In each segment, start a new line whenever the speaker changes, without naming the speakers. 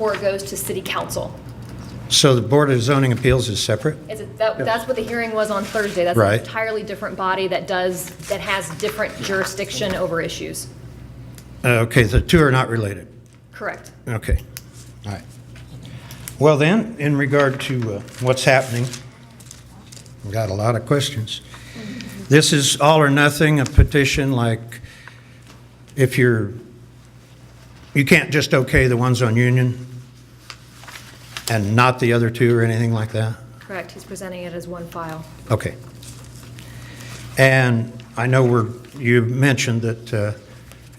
before it goes to city council.
So the Board of Zoning Appeals is separate?
Is it, that, that's what the hearing was on Thursday. That's an
Right.
entirely different body that does, that has different jurisdiction over issues.
Uh, Okay, the two are not related.
Correct.
Okay.
All right.
Well then, in regard to uh, what's happening, we got a lot of questions. This is all or nothing, a petition like if you're, you can't just okay the ones on Union and not the other two or anything like that?
Correct. He's presenting it as one file.
Okay. And I know we're, you mentioned that uh,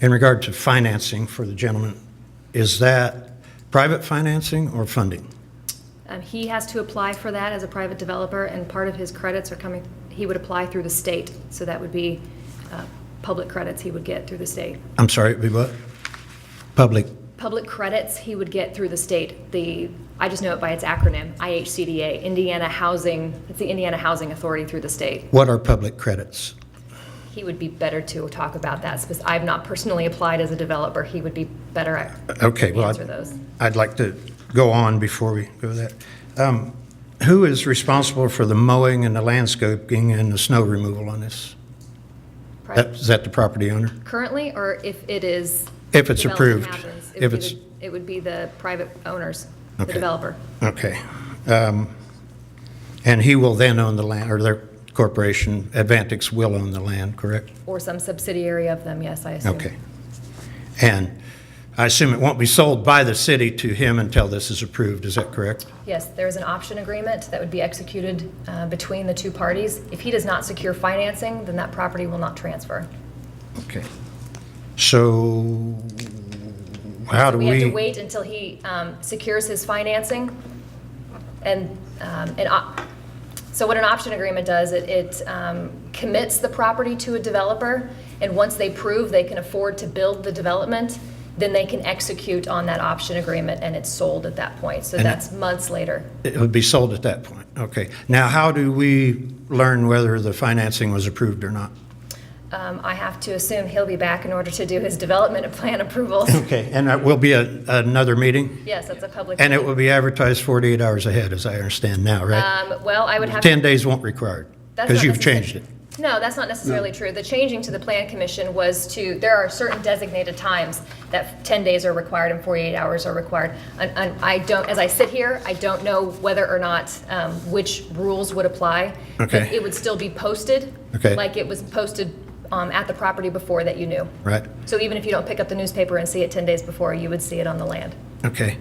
in regard to financing for the gentleman, is that private financing or funding?
Um, he has to apply for that as a private developer, and part of his credits are coming, he would apply through the state. So that would be, uh, public credits he would get through the state.
I'm sorry, it'd be what? Public,
Public credits he would get through the state, the, I just know it by its acronym, IHCDA, Indiana Housing, it's the Indiana Housing Authority through the state.
what are public credits?
He would be better to talk about that, because I've not personally applied as a developer, he would be better at
Okay, well,
answer
I'd-
those.
I'd like to go on before we go there. Um, Who is responsible for the mowing and the landscaping and the snow removal on this? That- Is that the property owner?
Currently, or if it is.
If it's
development
approved.
happens,
If
It would
it's-
be, the- it would be the private owners, the
Okay.
developer.
Okay. Um, And he will then own the land, or their corporation, Advantix will own the land, correct?
Or some subsidiary of them, yes, I assume.
Okay. And I assume it won't be sold by the city to him until this is approved, is that correct?
Yes, there is an option agreement that would be executed uh, between the two parties. If he does not secure financing, then that property will not transfer.
Okay. So how do
We have to
we,
wait until he um, secures his financing. And, um, an op- so what an option agreement does, it- it um, commits the property to a developer, and once they prove they can afford to build the development, then they can execute on that option agreement, and it's sold at that point. So
And-
that's months later.
it would be sold at that point? Okay. Now, how do we learn whether the financing was approved or not?
Um, I have to assume he'll be back in order to do his development plan approvals.
Okay, and that will be a- another meeting?
Yes, that's a public.
And it
meeting.
will be advertised 48 hours ahead, as I understand now, right?
Um, Well, I would have.
10 days won't required,
That's
because
not
you've
necessar-
changed it.
No, that's not necessarily true. The changing to the plan commission was to, there are certain designated times that 10 days are required and 48 hours are required. And and I don't, as I sit here, I don't know whether or not um, which rules would apply. But
Okay.
It would still be posted.
Okay.
Like it was posted um, at the property before that you knew.
Right.
So even if you don't pick up the newspaper and see it 10 days before, you would see it on the land.
Okay.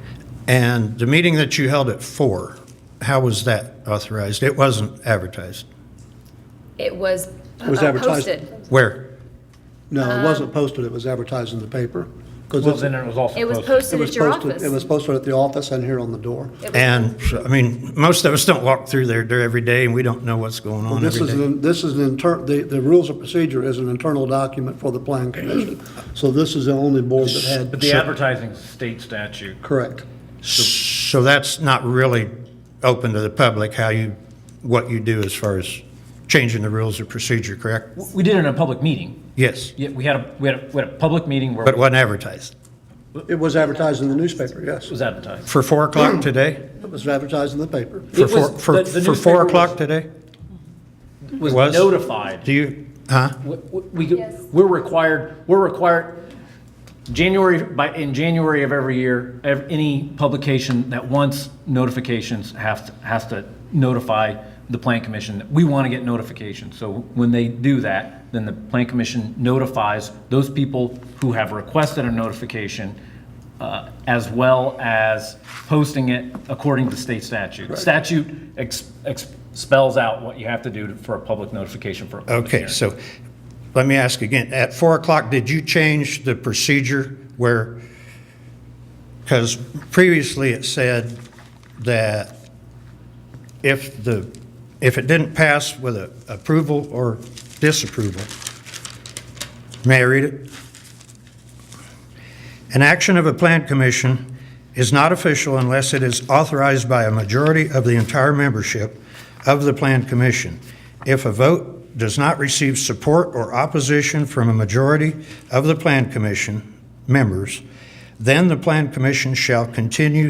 And the meeting that you held at 4, how was that authorized? It wasn't advertised.
It was
was
uh,
advertised.
posted.
Where?
No, it
Um,
wasn't posted, it was advertised in the paper. 'cause
Well,
it's-
then it was also
It was
posted.
it
posted
was
at your
posted.
office.
It was posted at the office and here on the door.
It was-
And, I mean, most of us don't walk through there there every day, and we don't know what's going on
This
every
is,
day.
an- this is an inter, the, the rules of procedure is an internal document for the plan commission. So this is the only board that had,
But the advertising state statute.
correct.
So that's not really open to the public, how you, what you do as far as changing the rules of procedure, correct?
We did it in a public meeting.
Yes,
Yeah, we had a, we had a, we had a public meeting where
but it
it
wasn't advertised.
It was advertised in the newspaper, yes.
was advertised.
For 4 o'clock today?
It was advertised in the paper.
For
Mm. It was-
four, for,
the- the
for
newspaper
four
was-
o'clock today?
Was
was?
notified.
Do you, huh?
We, we, we're required, we're required, January, by, in January of every year, ev- any publication that wants notifications has, to- has to notify the plan commission that we want to get notifications. So when they do that, then the plan commission notifies those people who have requested a notification, uh, as well as posting it according to state statute. Statute ex- ex- spells out what you have to do to- for a public notification for a public
Okay,
hearing.
so let me ask again. At four o'clock, did you change the procedure where, because previously it said that if the, if it didn't pass with a approval or disapproval, may I read it? An action of a plan commission is not official unless it is authorized by a majority of the entire membership of the plan commission. If a vote does not receive support or opposition from a majority of the plan commission members, then the plan commission shall continue